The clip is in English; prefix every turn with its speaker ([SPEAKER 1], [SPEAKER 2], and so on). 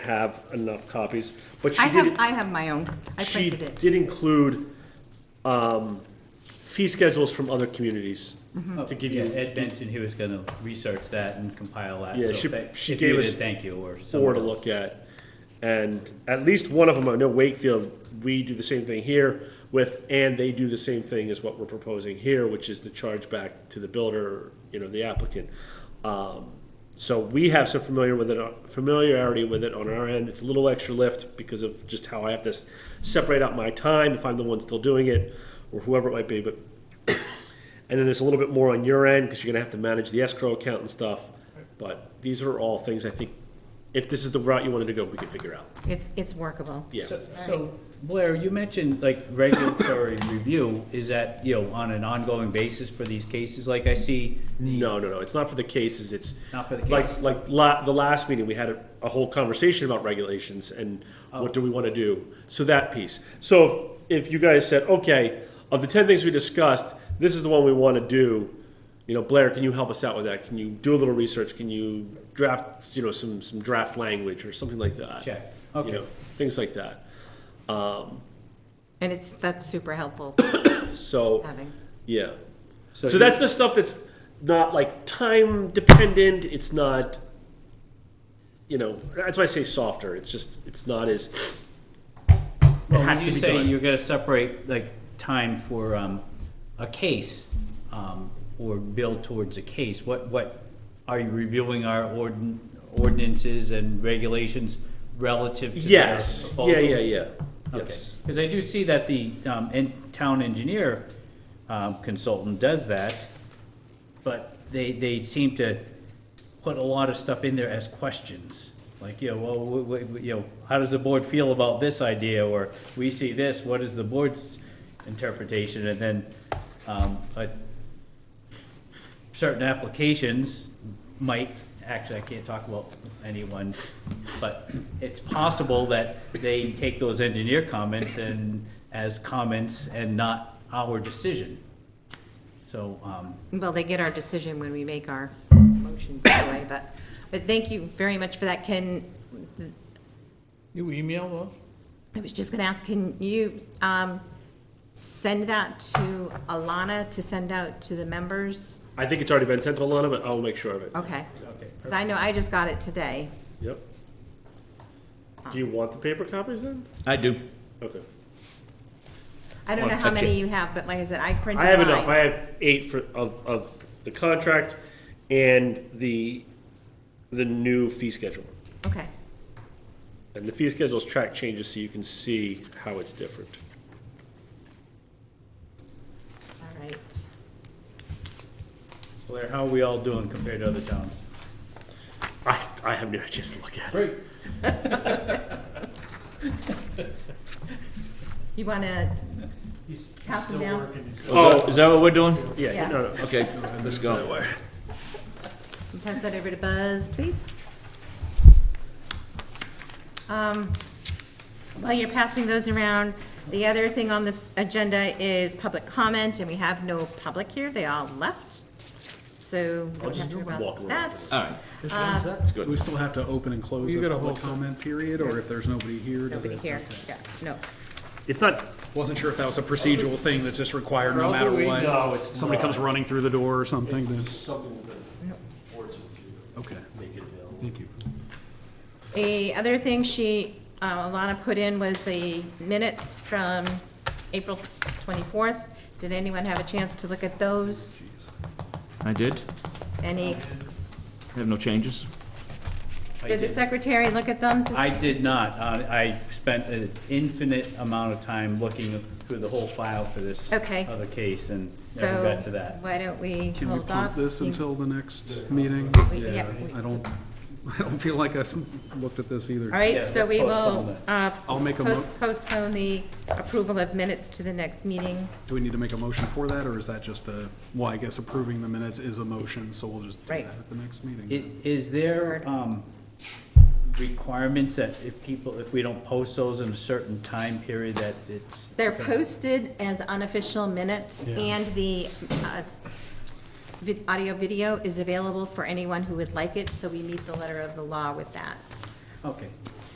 [SPEAKER 1] have enough copies, but she
[SPEAKER 2] I
[SPEAKER 1] did.
[SPEAKER 2] have, I have my own. I
[SPEAKER 1] She
[SPEAKER 2] printed it.
[SPEAKER 1] did include um, fee schedules from other communities to give
[SPEAKER 3] Yeah,
[SPEAKER 1] you
[SPEAKER 3] Ed mentioned he was gonna research that and compile that.
[SPEAKER 1] Yeah,
[SPEAKER 3] so
[SPEAKER 1] she-
[SPEAKER 3] thank-
[SPEAKER 1] she
[SPEAKER 3] if you
[SPEAKER 1] gave us
[SPEAKER 3] did, Thank you, or
[SPEAKER 1] four
[SPEAKER 3] someone
[SPEAKER 1] to
[SPEAKER 3] else.
[SPEAKER 1] look at. And at least one of them, I know Wakefield, we do the same thing here with, and they do the same thing as what we're proposing here, which is the charge back to the builder, you know, the applicant. Um, So we have some familiar with it, uh, familiarity with it on our end. It's a little extra lift because of just how I have to s- separate out my time if I'm the one still doing it or whoever it might be, but and then there's a little bit more on your end because you're gonna have to manage the escrow account and stuff. But these are all things I think, if this is the route you wanted to go, we could figure out.
[SPEAKER 2] It's, it's workable.
[SPEAKER 1] Yeah.
[SPEAKER 3] So- So Blair, you mentioned like regulatory review, is that, you know, on an ongoing basis for these cases? Like I see,
[SPEAKER 1] No, no, no. It's not for the cases. It's
[SPEAKER 3] Not for the
[SPEAKER 1] like
[SPEAKER 3] case.
[SPEAKER 1] like la- the last meeting we had a, a whole conversation about regulations and
[SPEAKER 3] Oh.
[SPEAKER 1] what do we want to do. So that piece. So if, if you guys said, okay, of the ten things we discussed, this is the one we want to do. You know, Blair, can you help us out with that? Can you do a little research? Can you draft, you know, some some draft language or something like that?
[SPEAKER 3] Check.
[SPEAKER 1] You
[SPEAKER 3] Okay.
[SPEAKER 1] know, things like that.
[SPEAKER 2] And it's, that's super helpful
[SPEAKER 1] So
[SPEAKER 2] having.
[SPEAKER 1] yeah.
[SPEAKER 3] so.
[SPEAKER 1] So,
[SPEAKER 3] you-
[SPEAKER 1] that's the stuff that's not like time dependent. It's not, you know, that's why I say softer. It's just, it's not as. It
[SPEAKER 3] Well,
[SPEAKER 1] has
[SPEAKER 3] when
[SPEAKER 1] to
[SPEAKER 3] you
[SPEAKER 1] be
[SPEAKER 3] say
[SPEAKER 1] done.
[SPEAKER 3] you're gonna separate like time for, um, a case, um, or build towards a case, what, what, are you reviewing our ordin- ordinances and regulations relative to their
[SPEAKER 1] Yes.
[SPEAKER 3] proposal?
[SPEAKER 1] Yeah, yeah, yeah.
[SPEAKER 3] Okay,
[SPEAKER 1] Yes.
[SPEAKER 3] because I do see that the, um, en- town engineer, um, consultant does that, but they, they seem to put a lot of stuff in there as questions. Like, you know, well, w- w- you know, how does the board feel about this idea, or we see this, what is the board's interpretation, and then, um, a certain applications might, actually, I can't talk about anyone, but it's possible that they take those engineer comments and, as comments and not our decision. So, um,
[SPEAKER 2] Well, they get our decision when we make our motions anyway, but, but thank you very much for that. Can,
[SPEAKER 4] You email those?
[SPEAKER 2] I was just gonna ask, can you, um, send that to Alana to send out to the members?
[SPEAKER 1] I think it's already been sent to Alana, but I'll make sure of it.
[SPEAKER 2] Okay.
[SPEAKER 3] okay.
[SPEAKER 2] 'Cause I know, I just got it today.
[SPEAKER 1] Yep. Do you want the paper copies then?
[SPEAKER 5] I do.
[SPEAKER 1] Okay.
[SPEAKER 2] I don't know
[SPEAKER 5] Wanna
[SPEAKER 2] how
[SPEAKER 5] touch
[SPEAKER 2] many
[SPEAKER 5] it?
[SPEAKER 2] you have, but like I said, I printed
[SPEAKER 1] I have
[SPEAKER 2] mine.
[SPEAKER 1] enough. I have eight for, of, of the contract and the, the new fee schedule.
[SPEAKER 2] Okay,
[SPEAKER 1] And the fee schedule's track changes so you can see how it's different.
[SPEAKER 2] all right.
[SPEAKER 3] Blair, how are we all doing compared to other towns?
[SPEAKER 1] I, I have no chance to look at it.
[SPEAKER 3] Great.
[SPEAKER 2] You wanna pass them down?
[SPEAKER 1] Oh.
[SPEAKER 5] Is that what we're doing?
[SPEAKER 1] Yeah,
[SPEAKER 2] Yeah.
[SPEAKER 1] no, no.
[SPEAKER 5] Okay, let's go.
[SPEAKER 2] Pass that over to Buzz, please. Um, While you're passing those around, the other thing on this agenda is public comment, and we have no public here, they all left. So we don't have
[SPEAKER 1] just
[SPEAKER 2] to worry
[SPEAKER 1] walk
[SPEAKER 2] about
[SPEAKER 1] around.
[SPEAKER 2] that.
[SPEAKER 5] All right.
[SPEAKER 6] That's
[SPEAKER 5] good.
[SPEAKER 6] We still have to open and close
[SPEAKER 4] You
[SPEAKER 6] a
[SPEAKER 4] got a
[SPEAKER 6] public
[SPEAKER 4] whole-
[SPEAKER 6] comment period, or if there's nobody here? does
[SPEAKER 2] Nobody
[SPEAKER 6] it-
[SPEAKER 2] here, yeah, no.
[SPEAKER 1] It's not,
[SPEAKER 6] Wasn't sure if that was a procedural thing that's just required no
[SPEAKER 4] How do
[SPEAKER 6] matter
[SPEAKER 4] we
[SPEAKER 6] what.
[SPEAKER 4] know it's
[SPEAKER 6] Somebody comes running through the door or something, then,
[SPEAKER 7] something that boards would do,
[SPEAKER 6] okay,
[SPEAKER 7] make it available.
[SPEAKER 6] thank you.
[SPEAKER 2] The other thing she, uh, Alana put in was the minutes from April 24th. Did anyone have a chance to look at those?
[SPEAKER 5] I did.
[SPEAKER 2] Any,
[SPEAKER 5] I have no changes.
[SPEAKER 3] I
[SPEAKER 2] did the
[SPEAKER 3] did-
[SPEAKER 2] secretary look at them? to-
[SPEAKER 3] I did not. Uh, I spent an infinite amount of time looking through the whole file for this
[SPEAKER 2] Okay.
[SPEAKER 3] other case and never
[SPEAKER 2] So
[SPEAKER 3] got to that.
[SPEAKER 2] why don't we
[SPEAKER 6] Can we
[SPEAKER 2] hold off?
[SPEAKER 6] punt this
[SPEAKER 2] You-
[SPEAKER 6] until the next meeting?
[SPEAKER 2] We- yeah, we-
[SPEAKER 6] I don't, I don't feel like I've looked at this either.
[SPEAKER 2] All right,
[SPEAKER 3] Yeah,
[SPEAKER 2] so we
[SPEAKER 3] postpone
[SPEAKER 2] will uh,
[SPEAKER 6] I'll make a mo-
[SPEAKER 2] post- postpone the approval of minutes to the next meeting.
[SPEAKER 6] Do we need to make a motion for that, or is that just a, well, I guess approving the minutes is a motion, so we'll just do that
[SPEAKER 2] Right.
[SPEAKER 6] at the next meeting?
[SPEAKER 3] I- Is there, um, requirements that if people, if we don't post those in a certain time period that it's?
[SPEAKER 2] They're posted as unofficial minutes,
[SPEAKER 6] Yeah.
[SPEAKER 2] and the uh, vid- audio video is available for anyone who would like it, so we meet the letter of the law with that.
[SPEAKER 3] Okay,